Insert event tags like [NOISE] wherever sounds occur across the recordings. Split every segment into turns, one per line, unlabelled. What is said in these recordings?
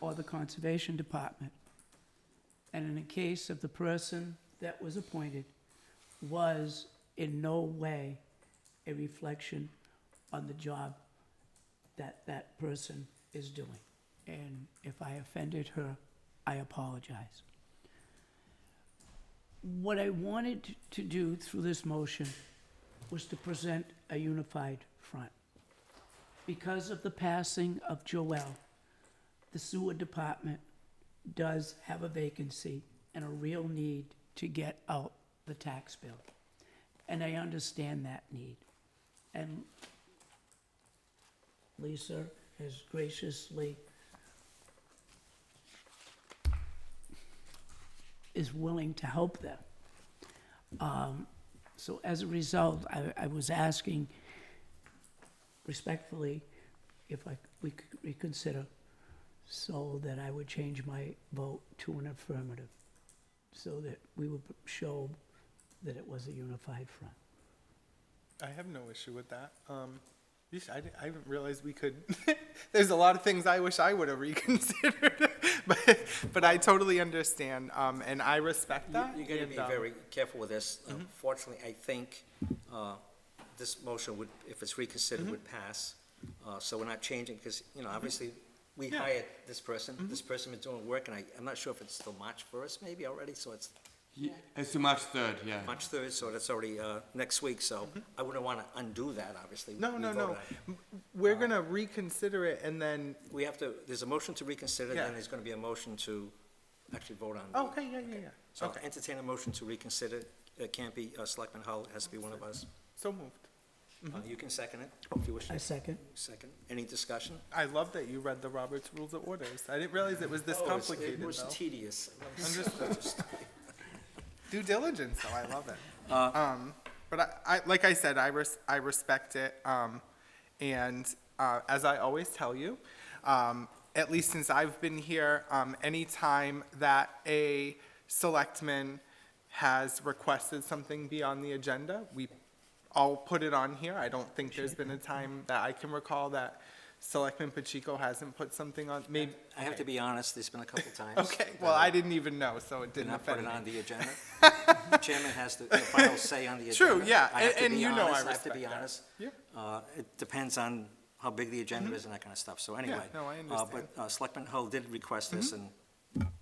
or the Conservation Department. And in the case of the person that was appointed was in no way a reflection on the job that that person is doing. And if I offended her, I apologize. What I wanted to do through this motion was to present a unified front. Because of the passing of Joel, the sewer department does have a vacancy and a real need to get out the tax bill. And I understand that need. And Lisa has graciously is willing to help them. Um, So as a result, I, I was asking respectfully if I, we could reconsider so that I would change my vote to an affirmative, so that we would show that it was a unified front.
I have no issue with that. Um, yeesh, I, di- I didn't realize we could. [LAUGHS] there's a lot of things I wish I would have [LAUGHS] reconsidered, but but I totally understand, um, and I respect that. Mm-hmm.
You- You're gonna
and,
be
um,
very careful with this. Unfortunately, I think uh, this motion would, if it's
Mm-hmm.
reconsidered, would pass. Uh, So we're not changing, because, you know, obviously, we
Yeah. Mm-hmm.
hired this person, this person been doing work, and I, I'm not sure if it's still March first maybe already, so it's
Ye- It's the March third, yeah.
March third, so that's already uh, next week, so I wouldn't wanna undo that, Uh-huh. obviously.
Mm-hmm. No,
We
no,
voted
no.
on it.
We're gonna reconsider it, and then
We have to, there's a motion to reconsider,
Yeah.
then there's gonna be a motion to actually vote on. the-
oh, okay, yeah, yeah, yeah.
So I'll
okay,
entertain a motion to reconsider. It can't be uh, Selectman Hull, it has to be one of us.
so moved.
Uh, You can second it, if you wish.
I second.
Second. Any discussion?
I love that you read the Robert's Rules of Orders. I didn't realize it was this
Oh, it's-
complicated.
It was
though.
tedious. [LAUGHS]
Due diligence, though. I love it.
Uh.
um, but I, I, like I said, I, res- I respect it. Um, and uh, as I always tell you, um, at least since I've been here, um, any time that a selectman has requested something be on the agenda, we all put it on here. I don't think there's been a time that I can recall that Selectman Pacheco hasn't put something on. Maybe.
I have to be honest, there's been a couple times.
[LAUGHS] Okay. Well,
that
I didn't even know, so it
did
didn't
not put
affect
it
me.
on the
[LAUGHS]
agenda. The Chairman has the the final say on the agenda.
True, yeah,
I have
and-
to
and
be
you know I
honest, have to be
respect that.
honest.
Yeah. Mm-hmm.
Uh, It depends on how big the agenda is and that kind of stuff, so anyway.
no, I
uh,
understand. Mm-hmm.
But uh, Selectman Hull did request this, and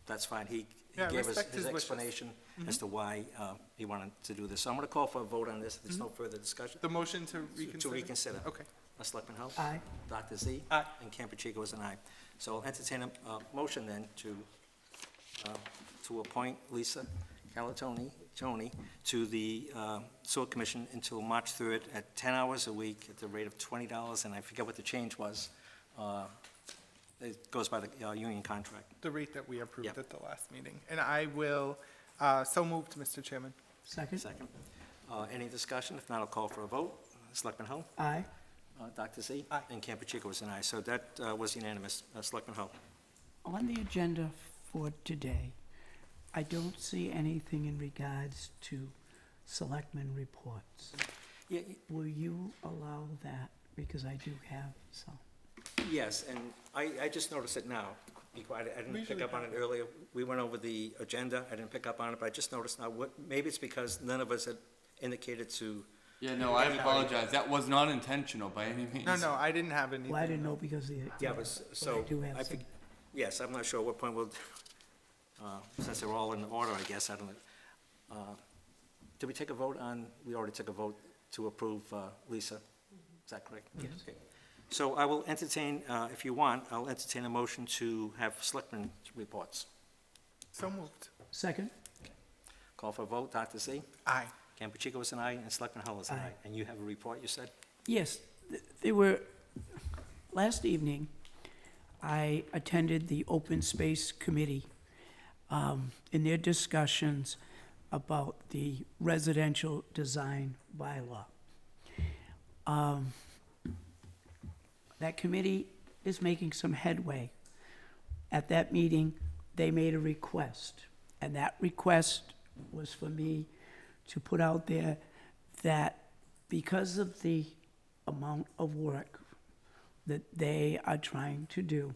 that's fine. He he
Yeah, I
gave us
respect
his
his wishes. Mm-hmm.
explanation as to why uh, he wanted to do this. So I'm going to call for a vote on this, if there's
Mm-hmm.
no further discussion.
The motion to reconsider?
To reconsider.
Okay.
Uh, Selectman Hull?
Aye.
Dr. Z?
Aye.
And Campuchico is an aye. So I'll entertain a, uh motion then to, uh, to appoint Lisa Calatoni, Tony, to the uh, Sewer Commission until March 3rd at 10 hours a week at the rate of $20, and I forget what the change was. Uh, It goes by the uh, union contract.
The rate that we approved
Yep.
at the last meeting. And I will, uh, so moved, Mr. Chairman.
Second?
Second. Uh, Any discussion? If not, I'll call for a vote. Selectman Hull?
Aye.
Uh, Dr. Z?
Aye.
And Campuchico is an aye. So that uh, was unanimous. Uh, Selectman Hull?
On the agenda for today, I don't see anything in regards to selectmen reports.
Yeah, y-
Will you allow that? Because I do have some.
Yes, and I, I just noticed it now. Be quiet, I didn't pick
usually
up on it earlier. We went over the agenda, I didn't pick up on it, but I just noticed now, what, maybe it's because none of us had indicated to,
Yeah, no, I apologize. That was not intentional by any means.
No, no, I didn't have anything.
Well, I didn't know because the.
yeah, but, s- so.
do have
I fig-
some.
Yes, I'm not sure what point we'll, uh, since they're all in order, I guess, I don't know. Uh, Did we take a vote on, we already took a vote to approve uh, Lisa? Is that correct? Yes. So I will entertain, uh, if you want, I'll entertain a motion to have selectmen reports.
So moved.
Second?
Call for a vote, Dr. Z?
Aye.
Campuchico is an aye, and Selectman Hull is an aye. And you have a report, you said?
Yes, th- they were, last evening, I attended the Open Space Committee um, in their discussions about the residential design bylaw. Um, That committee is making some headway. At that meeting, they made a request, and that request was for me to put out there that because of the amount of work that they are trying to do,